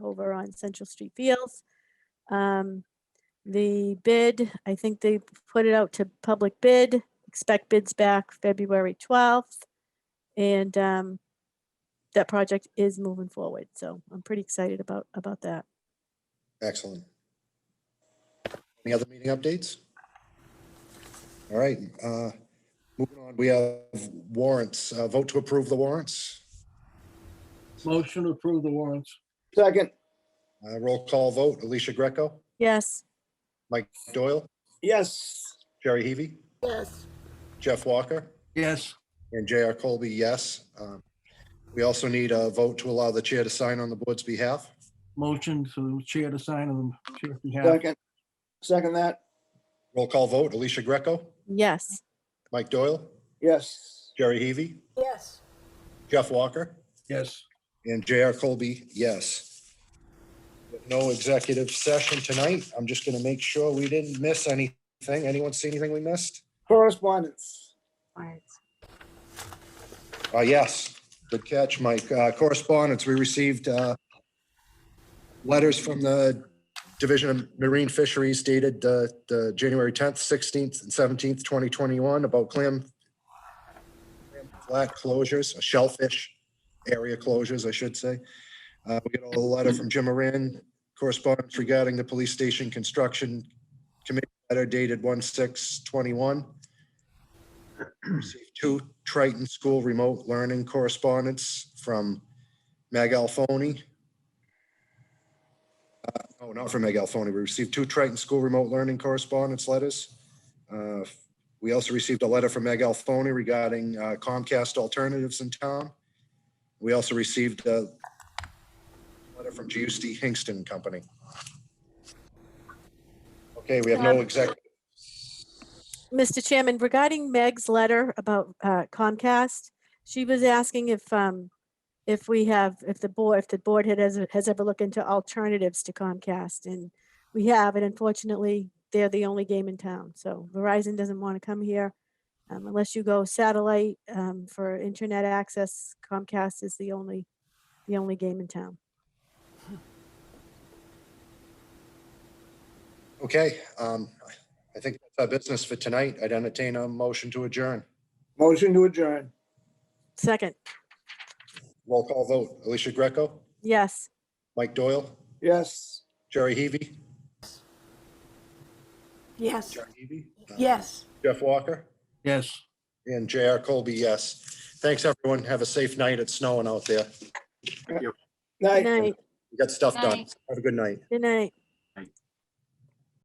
over on Central Street Fields. Um, The bid, I think they put it out to public bid, expect bids back February 12th. And um, that project is moving forward, so I'm pretty excited about, about that. Excellent. Any other meeting updates? All right, uh, moving on, we have warrants, uh, vote to approve the warrants. Motion to approve the warrants. Second, Uh, roll call vote, Alicia Greco, Yes, Mike Doyle, yes. Jerry Heavy, Yes. Jeff Walker, Yes, and JR Colby, yes. Um, We also need a vote to allow the chair to sign on the board's behalf. motion to chair to sign on the chair's behalf. Second, second that, Roll call vote, Alicia Greco, yes, Mike Doyle, yes. Jerry Heavy, Yes, Jeff Walker, Yes, And JR Colby, yes. With No executive session tonight. I'm just going to make sure we didn't miss anything. Anyone see anything we missed? Correspondence, Uh, yes, good catch, Mike. Uh, correspondence, we received, uh, letters from the Division of Marine Fisheries dated, uh, the January 10th, 16th, and 17th, 2021 about clam clam flat closures, shellfish area closures, I should say. Uh, we got a letter from Jim Moran, correspondence regarding the police station construction committee letter dated 1/6/21 received two Triton School remote learning correspondence from Meg Alfoni. Uh, No, not from Meg Alfoni. We received two Triton School remote learning correspondence letters. Uh, We also received a letter from Meg Alfoni regarding uh, Comcast alternatives in town. We also received a letter from GUSD Hingston Company. Okay, we have no Um, exec, Mr. Chairman, regarding Meg's letter about uh, Comcast, she was asking if, um, if we have, if the board, if the board had, has- has ever looked into alternatives to Comcast, and we have, and unfortunately, they're the only game in town, so Verizon doesn't want to come here. Um, Unless you go satellite um, for internet access, Comcast is the only, the only game in town. Okay, um, I think that's our business for tonight. I'd entertain a motion to adjourn. motion to adjourn, Second, Roll call vote. Alicia Greco, yes. Mike Doyle, yes. Jerry Heavy. yes, Heavy. yes. Uh, Jeff Walker yes. and JR Colby, yes. Thanks, everyone. Have a safe night. It's snowing out there. Night. Good night, We got stuff done. Night. Have a good night. good night.